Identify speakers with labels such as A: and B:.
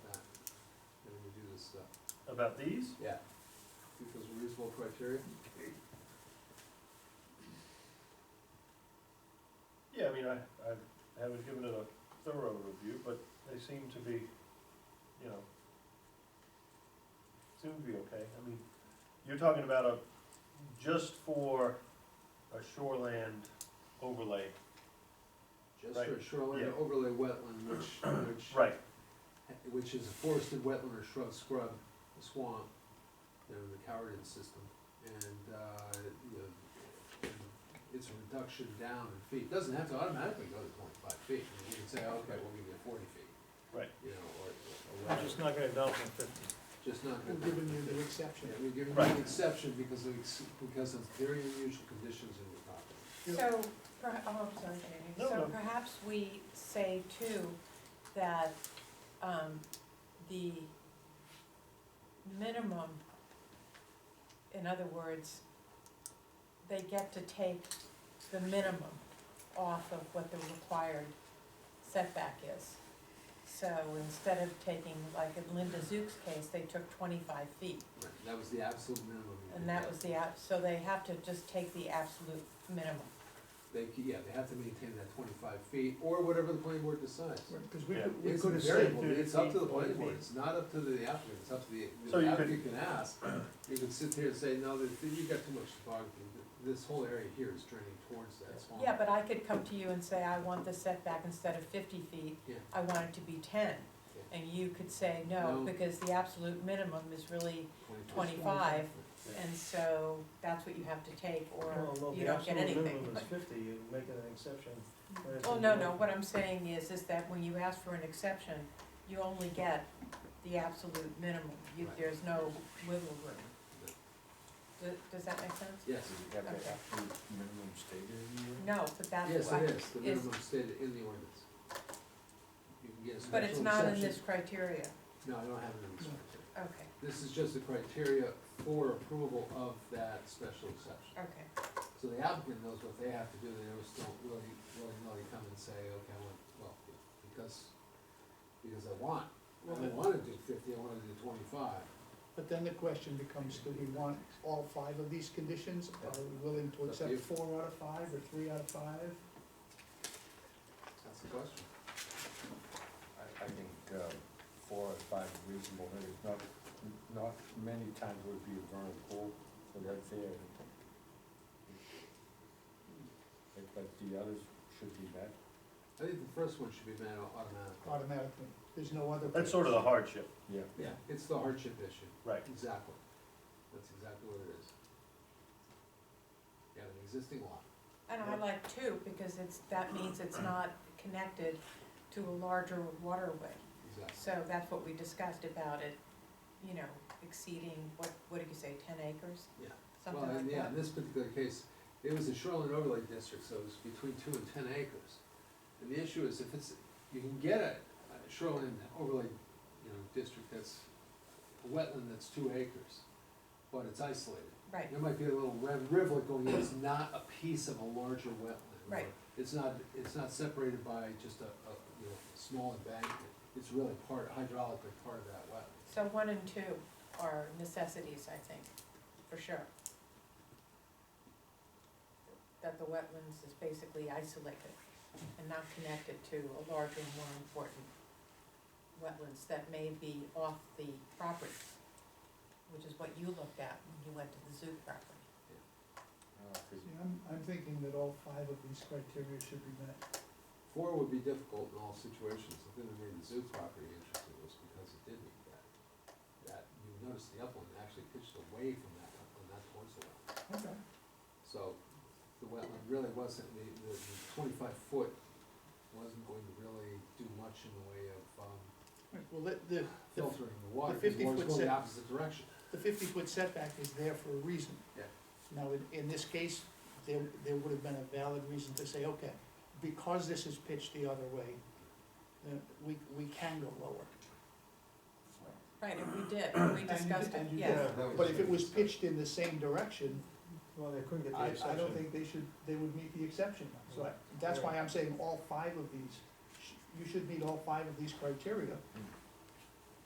A: about these?
B: Yeah.
C: Because of reasonable criteria.
A: Yeah, I mean, I, I haven't given it a thorough review, but they seem to be, you know, seem to be okay. I mean, you're talking about a, just for a shoreland overlay.
C: Just for
A: Right,
C: a shoreline
A: yeah.
C: overlay wetland, which, which,
A: Right.
C: which is a forested wetland or shrub scrub swamp, you know, the Cowardin system. And, uh, you know, and it's a reduction down in feet, doesn't have to automatically go to twenty-five feet. I mean, You can say, okay, we'll give you forty feet.
A: Right.
C: You know, or- or,
D: I'm
C: whatever.
D: just not gonna dump in fifty.
C: just not
E: We're
C: gonna.
E: giving you the exception.
C: Yeah, we're giving you
A: Right.
C: an exception because of, ex- because of very unusual conditions in the property.
F: So, perha- oh, I'm sorry, Jamie.
A: No, no.
F: so perhaps we say too, that, um, the minimum, in other words, they get to take the minimum off of what the required setback is. So instead of taking, like in Linda Zook's case, they took twenty-five feet,
C: Right, That was the absolute minimum. you
F: and
C: could
F: that
C: get.
F: was the ab, so they have to just take the absolute minimum.
C: They, c- yeah, they have to maintain that twenty-five feet, or whatever the planning board decides.
E: Because we
A: Yeah.
E: could, we
C: It's
E: could have said,
C: variable, it's up to the planning board, it's not up to the applicant, it's up to the,
A: So you
C: the
A: could-
C: applicant can ask. You could sit there and say, no, th- th- you've got too much topography, Th- this whole area here is draining towards that swamp.
F: Yeah, but I could come to you and say, I want the setback instead of fifty feet,
C: Yeah.
F: I want it to be ten. And you could say, no,
C: No.
F: because the absolute minimum is really
C: 25.
F: twenty-five,
A: Yeah.
F: and so that's the absolute minimum is really 25 and so that's what you have to take,
D: Well, no,
F: or you
D: the
F: don't
D: absolute
F: get anything.
D: minimum is fifty, you make an exception. when it's
F: Well,
D: in
F: no,
D: the-
F: no, what I'm saying is, is that when you ask for an exception, you only get the absolute minimum, you,
C: Right.
F: there's no wiggle room. Does, does that make sense?
C: Yes,
G: Have that
F: Okay.
G: absolute minimum stated in here?
F: No, but that's
C: yes,
F: why,
C: it is, the
F: is-
C: minimum stated in the ordinance. You can get a
F: but it's
C: special
F: not in
C: exception.
F: this criteria,
C: No, I don't have it in this criteria.
F: okay,
C: This is just the criteria for approval of that special exception.
F: okay.
C: So the applicant knows what they have to do, they always don't really, really, really come and say, okay, I want, well, because, because I want, I don't wanna do fifty, I wanna do twenty-five.
E: but then the question becomes, do we want all five of these conditions? Are we willing to
C: Up to
E: accept
C: you.
E: four out of five or three out of five?
C: That's the question.
G: I, I think, um, four or five is reasonable, but it's not, not many times would be a vernal pool, so right there. But- But the others should be met.
C: I think the first one should be met automatically.
E: Automatically, there's no other.
A: That's sort of the hardship,
G: Yeah.
C: Yeah, it's the hardship issue,
A: right.
C: exactly. That's exactly what it is. You have an existing lot.
F: And I like two, because it's, that means it's not connected to a larger waterway.
C: Exactly.
F: So that's what we discussed about it, you know, exceeding, what, what did you say, ten acres?
C: Yeah. Well,
F: Something
C: and
F: like
C: yeah,
F: that?
C: in this particular case, it was a shoreline overlay district, so it was between two and ten acres. And the issue is if it's, you can get a a shoreline overlay, you know, district that's, a wetland that's two acres, but it's isolated.
F: Right,
C: There might be a little red rivulet going in, it's not a piece of a larger wetland. or
F: Right.
C: It's not, it's not separated by just a, a, you know, a small embankment, it's really part, hydraulically part of that wetland.
F: so one and two are necessities, I think, for sure. That the wetlands is basically isolated and not connected to a larger, more important wetlands that may be off the property, which is what you looked at when you went to the zoo property.
G: Uh, 'cause
E: See, I'm, I'm thinking that all five of these criteria should be met.
C: Four would be difficult in all situations, the thing that made the zoo property interesting was because it did meet that. That, you notice the upland actually pitched away from that upland, not towards the wetland.
E: Okay.
C: So the wetland really wasn't, the, the the twenty-five foot wasn't going to really do much in the way of, um,
E: Well, the, the, the
C: filtering the water,
E: the
C: because the
E: 50
C: water's
E: foot
C: going the
E: set-
C: opposite direction.
E: the fifty-foot setback is there for a reason.
C: Yeah.
E: Now, in, in this case, there, there would have been a valid reason to say, okay, because this is pitched the other way, then we, we can go lower.
F: Right, and we did, we
E: And you
F: discussed
E: did-
F: it,
E: and you
F: yes.
E: did. But if it was pitched in the same direction,
D: Well, they couldn't get the
E: I,
D: exception.
E: I don't think they should, they would meet the exception. So that's why I'm saying all five of these, sh- you should meet all five of these criteria.